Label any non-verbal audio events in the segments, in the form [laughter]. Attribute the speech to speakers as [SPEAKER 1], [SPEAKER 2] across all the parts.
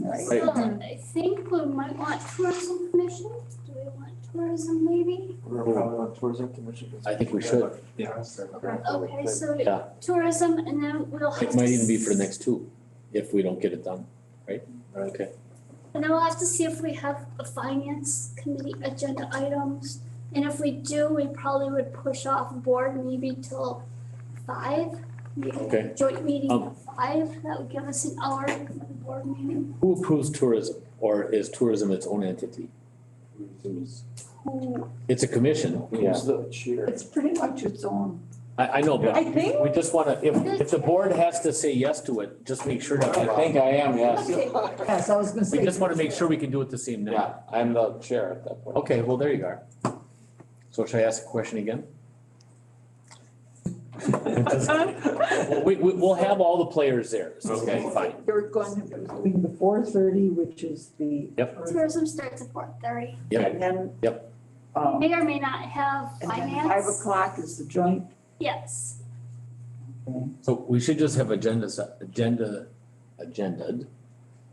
[SPEAKER 1] Right.
[SPEAKER 2] So
[SPEAKER 3] Mm-hmm.
[SPEAKER 2] I think we might want tourism commission. Do we want tourism maybe?
[SPEAKER 4] We're probably on tourism commission.
[SPEAKER 1] I think we should.
[SPEAKER 4] Yeah.
[SPEAKER 2] Okay, so
[SPEAKER 1] Yeah.
[SPEAKER 2] tourism and then we'll have to.
[SPEAKER 1] It might even be for the next two, if we don't get it done, right? Okay.
[SPEAKER 2] And then we'll have to see if we have a finance committee agenda items. And if we do, we probably would push off board maybe till five. Maybe
[SPEAKER 1] Okay.
[SPEAKER 2] Joint meeting
[SPEAKER 1] Um,
[SPEAKER 2] at five, that would give us an hour for the board meeting.
[SPEAKER 1] Who approves tourism, or is tourism its own entity?
[SPEAKER 2] Ooh,
[SPEAKER 1] It's a commission, yeah.
[SPEAKER 4] Who's the chair?
[SPEAKER 5] It's pretty much its own.
[SPEAKER 1] I, I know, but
[SPEAKER 5] I think,
[SPEAKER 1] we just wanna, if, if the board has to say yes to it, just make sure that.
[SPEAKER 6] I think I am, yes.
[SPEAKER 5] Okay. yes, I was gonna say.
[SPEAKER 1] We just wanna make sure we can do it the same night.
[SPEAKER 6] Yeah, I'm the chair at that point.
[SPEAKER 1] Okay, well, there you are. So should I ask a question again? Well, [laughs] We, we, we'll have all the players there, so it's gonna be fine.
[SPEAKER 5] You're going to.
[SPEAKER 3] Between the four thirty, which is the.
[SPEAKER 1] Yep.
[SPEAKER 2] Tourism starts at four thirty.
[SPEAKER 1] Yep,
[SPEAKER 3] And then.
[SPEAKER 1] Yep.
[SPEAKER 3] Um,
[SPEAKER 2] May or may not have
[SPEAKER 3] and then five
[SPEAKER 2] finance.
[SPEAKER 3] o'clock is the joint.
[SPEAKER 2] Yes,
[SPEAKER 1] so we should just have agendas, agenda, agended,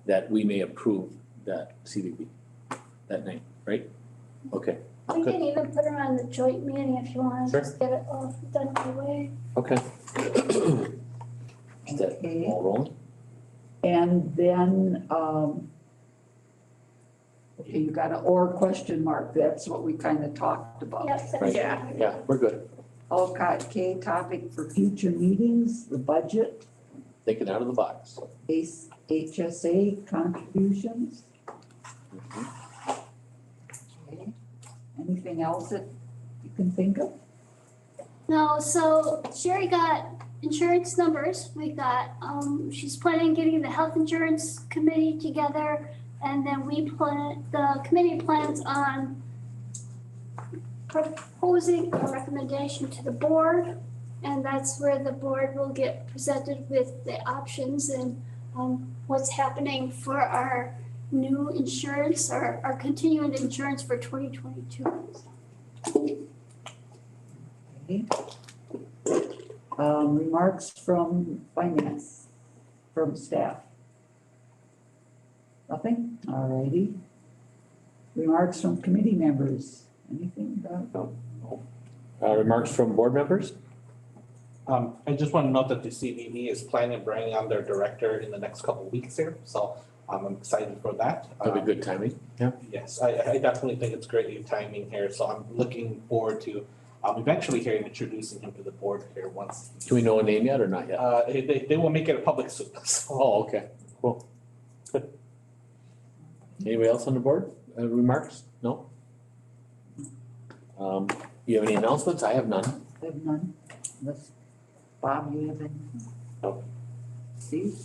[SPEAKER 1] that we may approve that CDB that night, right? Okay,
[SPEAKER 2] we
[SPEAKER 1] Okay.
[SPEAKER 2] can even put them on the joint meeting if you want to
[SPEAKER 1] Sure.
[SPEAKER 2] just get it all done away.
[SPEAKER 1] okay. Is that
[SPEAKER 3] Okay.
[SPEAKER 1] all rolling?
[SPEAKER 3] And then, um, okay, you got an or question mark. That's what we kind of talked about.
[SPEAKER 2] Yes. that's
[SPEAKER 1] Right.
[SPEAKER 2] fine.
[SPEAKER 1] Yeah, we're good.
[SPEAKER 3] Alcott K topic for future meetings, the budget,
[SPEAKER 1] Thinking out of the box.
[SPEAKER 3] ACE HSA contributions.
[SPEAKER 1] Mhm.
[SPEAKER 3] Okay. Anything else that you can think of?
[SPEAKER 2] No, so Sherry got insurance numbers. We got, um, she's planning on getting the health insurance committee together. And then we plan, the committee plans on proposing a recommendation to the board. And that's where the board will get presented with the options and, um, what's happening for our new insurance or our continuing insurance for twenty twenty-two.
[SPEAKER 3] Okay. Um, remarks from finance, from staff? Nothing? All righty. Remarks from committee members? Anything about?
[SPEAKER 1] Uh, remarks from board members?
[SPEAKER 7] Um, I just want to note that the CBB is planning on bringing on their director in the next couple of weeks here, so um, I'm excited for that.
[SPEAKER 1] That'd be
[SPEAKER 7] Um,
[SPEAKER 1] good timing.
[SPEAKER 7] Yes, I, I definitely think it's great new timing here, so I'm looking forward to um, eventually hearing, introducing him to the board here once.
[SPEAKER 1] Do we know a name yet or not yet?
[SPEAKER 7] Uh, they- they, they will make it a public [laughs] soon, so.
[SPEAKER 1] Oh, okay. [laughs] Anybody else on the board? Uh, remarks? No? Um, you have any announcements? I have none.
[SPEAKER 3] I have none. Unless, Bob, you have anything?
[SPEAKER 1] Nope.
[SPEAKER 3] Steve?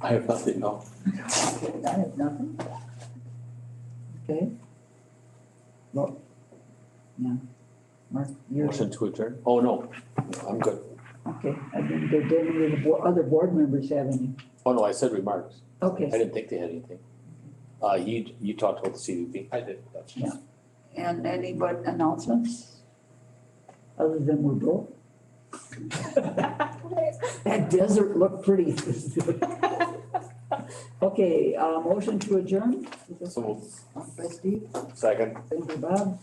[SPEAKER 1] I have nothing, no.
[SPEAKER 3] I have nothing. Okay. Well, yeah. Mark, you're.
[SPEAKER 1] Motion to adjourn? Oh, no, I'm good.
[SPEAKER 3] Okay, I didn't go down to the bo- other board members have any.
[SPEAKER 1] Oh, no, I said remarks. I
[SPEAKER 3] Okay,
[SPEAKER 1] didn't think they had anything. Uh, you, you talked about the CVP.
[SPEAKER 7] I did, that's
[SPEAKER 3] Yeah. and any but announcements? Other than we're broke? That desert looked pretty. [laughs] Okay, uh, motion to adjourn?
[SPEAKER 1] So moved.
[SPEAKER 3] Moved by Steve,
[SPEAKER 1] Second.
[SPEAKER 3] second by Bob.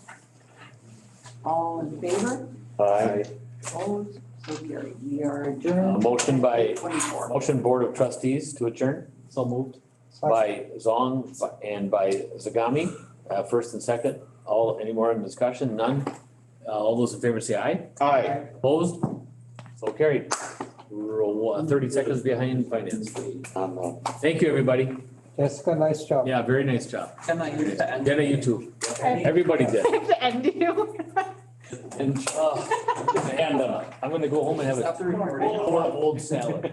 [SPEAKER 3] All in favor?
[SPEAKER 1] Aye.
[SPEAKER 3] Opposed? So carried. We are
[SPEAKER 1] Uh,
[SPEAKER 3] adjourned.
[SPEAKER 1] motion by,
[SPEAKER 3] Twenty-four.
[SPEAKER 1] motion Board of Trustees to adjourn? So moved. By Zong and by Zagami, uh, first and second. All, any more in discussion? None? Uh, all those in favor say aye?
[SPEAKER 7] Aye.
[SPEAKER 1] Opposed? So carried. Roll, uh, thirty seconds behind finance.
[SPEAKER 6] I'm
[SPEAKER 5] uh,
[SPEAKER 6] the
[SPEAKER 1] Thank you, everybody.
[SPEAKER 4] Jessica, nice job.
[SPEAKER 1] Yeah, very nice job.
[SPEAKER 5] Emma, you're the end.
[SPEAKER 1] Jenna, you too. Everybody did.
[SPEAKER 5] [laughs] The end you.
[SPEAKER 1] And, uh, and, uh, I'm gonna go home and have a
[SPEAKER 5] Stop the recording.
[SPEAKER 1] bowl of old salad.